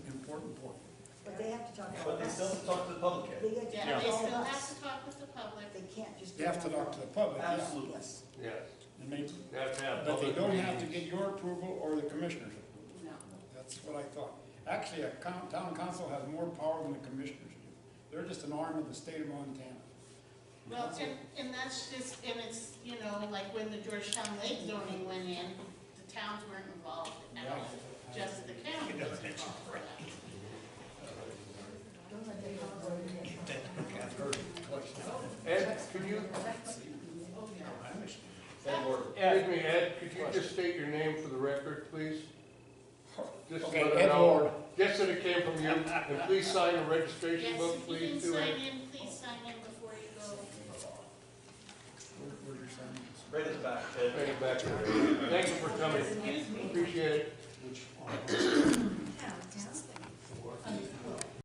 important point, But they have to talk about but they us. still have to talk to the public. They have to Yeah, talk they to all still of have us. to talk with the public. They can't just. They do it have to on their talk to own. the public, yeah. Absolutely. Yes, Yes, And they- they have to have But they public don't have to meetings. get your approval or the commissioner's approval. No. That's what I thought. Actually, a coun- town council has more power than the commissioners do. They're just an arm of the state of Montana. Well, and, and that's just, and it's, you know, like when the Georgetown Lake zoning went in, the towns weren't involved at all. Just the county was involved. for that. don't let them talk about it. Ed, could you, Oh, yeah. excuse me, Ed, could you just state your name for the record, please? Just Okay, let it Ed know. Ward. Just that it came from you, and please sign the registration Yes, book, if you can please do sign it. in, please sign in before you go. Where- where's your sign? Right at the back, Ted. Bring it back. Thank you for coming, Excuse me. appreciate it. Which,